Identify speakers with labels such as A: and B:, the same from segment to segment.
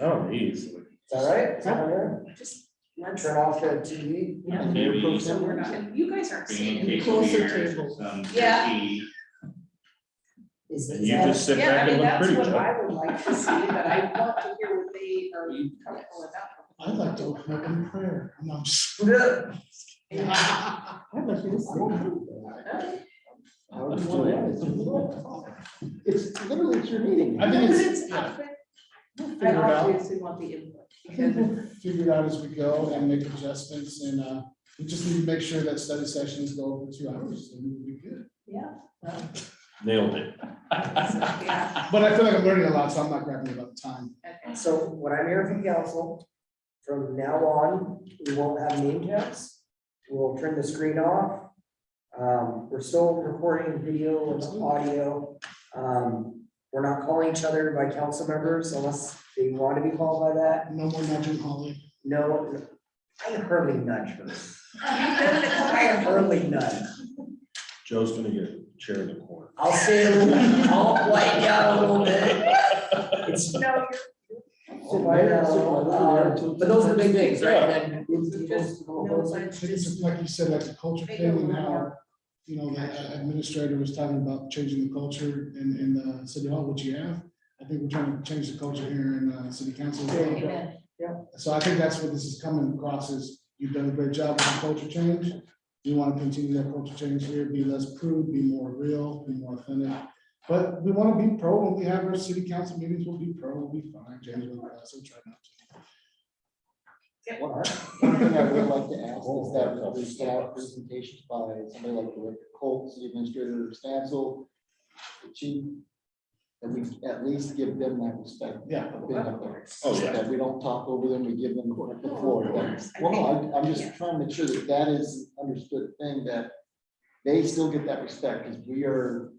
A: Oh, easily.
B: Is that right? Is that right?
C: Just let's,
B: Turn off the TV.
C: yeah.
A: Maybe.
C: So we're not, you guys aren't seeing
A: Being
C: it.
D: Closer
A: case
D: tables.
A: some
C: Yeah.
A: turkey,
B: Is
A: And
B: is
A: you
B: that-
A: just sit
C: Yeah, I
A: back
C: mean,
A: and look
C: that's
A: pretty,
C: what
A: Joe.
C: I would like to see, but I want to hear what they are comfortable about.
D: I'd like to open up in prayer, and I'm. s-
B: Yeah.
D: I'd like to open up.
B: I would just do it.
D: It's literally, it's your meeting.
C: But
D: I think it's,
C: it's,
D: yeah,
C: I
D: we'll figure it out.
C: obviously want the input,
D: I think
C: because
D: we'll Figure it out as we go and make adjustments, and, uh, we just need to make sure that study sessions go over two hours, and we'll be good.
C: Yeah. well,
A: Nailed it.
C: so, yeah,
D: But I feel like I'm learning a lot, so I'm not grabbing about the time.
C: okay.
B: So what I'm hearing from council, from now on, we won't have name tags. We'll turn the screen off. Um, we're still recording video and audio. Um, we're not calling each other by council members unless they want to be called by that.
D: No more nudging Holly.
B: No, I hardly nudge her. I hardly nudge.
A: Joe's gonna get chair of the court.
B: I'll say a little, I'll white you out a little bit. It's.
C: No,
B: I'll white out a little, uh, But those are the big things, right? Then it's- it's-
C: you're, no,
D: I
C: it's
D: think it's
C: just,
D: like you said, like the culture
C: Make it
D: thing and
C: more-
D: how, you know, the administrator was talking about changing the culture in, in the city hall, which you have. I think we're trying to change the culture here in, uh, city council. as well.
C: amen,
D: So I think that's what this is coming across is you've done a great job with the culture change. You want to continue that culture change here, be less crude, be more real, be more authentic. But we want to be pro when we have our city council meetings, we'll be pro, we'll be fine, James will let us, we'll try not to.
E: One thing I would like to ask is that we get out presentations by somebody like Rick Colt, city administrator of Stansel, the chief, that we at least give them that respect
D: Yeah.
E: of being up there.
A: Oh, yeah.
E: That we don't talk over them, we give them the floor.
C: Of course, I
E: Well, no,
C: think-
E: I- I'm
C: yeah.
E: just trying to make sure that that is understood thing, that they still get that respect, because we are,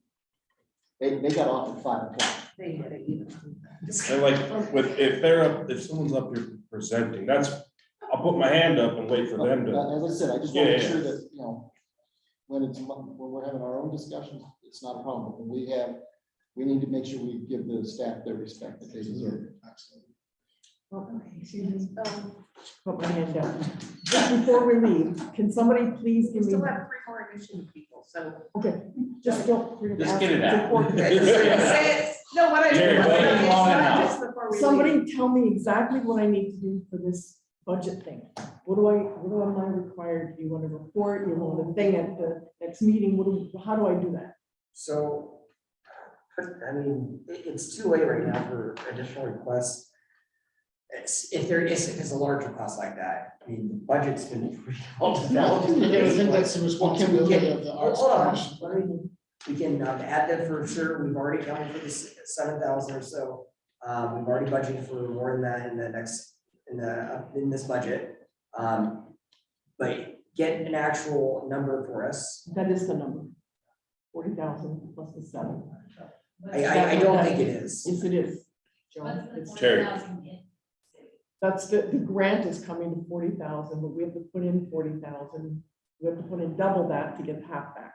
E: they, they got off at five o'clock.
C: they had it even.
A: And like, with, if they're up, if someone's up here presenting, that's, I'll put my hand up and wait for them to.
E: As I said, I just want to make
A: Yeah, yeah.
E: sure that, you know, when it's, mon- when we're having our own discussions, it's not a problem. When we have, we need to make sure we give the staff their respect that they deserve.
D: Absolutely.
C: Um,
F: Put my hand down. Just before we leave, can somebody please
C: We
F: give
C: still
F: me,
C: have three more admission people, so.
F: just don't. you're gonna
G: Just
F: ask
G: get it
F: me. It's
G: out.
F: important.
C: Say it. No, what I.
A: Jerry,
C: it's
A: wait.
C: not just before we leave.
F: Somebody tell me exactly what I need to do for this budget thing. What do I, what am I required? Do you want a report? You want a thing at the next meeting? What do, how do I do that?
B: So, I mean, it, it's too late right now for additional requests. It's, if there is, if it's a large request like that, I mean, the budget's been pretty well
D: No,
B: developed.
D: I think that's the responsibility of the
B: Hold
D: arts
B: on,
D: commission.
B: let me- we can um, add that for sure, we've already counted for the seven thousand or so. Um, we've already budgeted for more than that in the next, in the, uh, in this budget. Um, but get an actual number for us.
F: That is the number. Forty thousand plus the seven.
B: I, I, I don't think it is.
F: Yes, it is. Joan.
H: What's
F: It's-
H: the
A: Terry.
H: forty thousand in?
F: That's the, the grant is coming to forty thousand, but we have to put in forty thousand. We have to put in double that to get half back.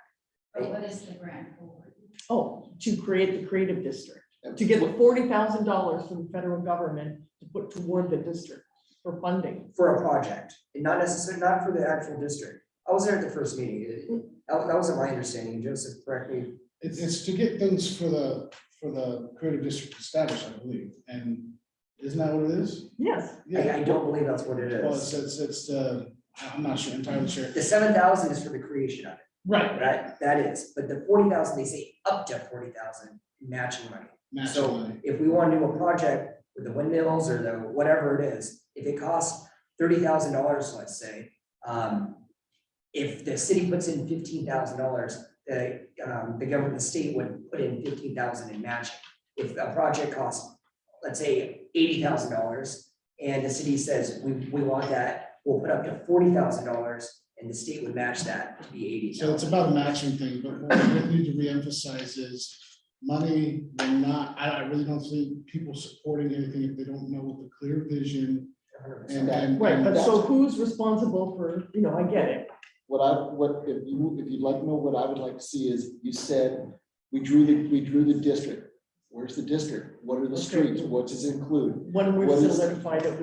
H: Or what is the grant for?
F: Oh, to create the creative district, to get the forty thousand dollars from the federal government to put toward the district for funding.
B: for a project, and not necessarily, not for the actual district. I was there at the first meeting, It- it- that, that wasn't my understanding, Joseph, correct me.
D: It's, it's to get things for the, for the creative district established, I believe, and isn't that what it is?
F: Yes,
B: I, I don't believe that's what it
D: Well, it's,
B: is.
D: it's, it's, uh, I'm not sure, entirely sure.
B: The seven thousand is for the creation of it,
D: Right.
B: right? That is, but the forty thousand, they say up to forty thousand matching money. So
D: Naturally.
B: if we want to do a project with the windmills or the, whatever it is, if it costs thirty thousand dollars, let's say, um, if the city puts in fifteen thousand dollars, the, um, the government, the state would put in fifteen thousand in matching. If a project costs, let's say, eighty thousand dollars, and the city says, we, we want that, we'll put up to forty thousand dollars, and the state would match that to be eighty
D: So it's
B: thousand.
D: about a matching thing, but what we really need to reemphasize is money will not, I, I really don't see people supporting anything if they don't know what the clear vision and, and.
F: right, but so who's responsible for, you know, I get it.
E: What I, what, if you, if you'd like to know, what I would like to see is, you said, we drew the, we drew the district. Where's the district? What are the
F: Okay.
E: streets? What does it include?
F: When we're
E: What is-
F: solidified, it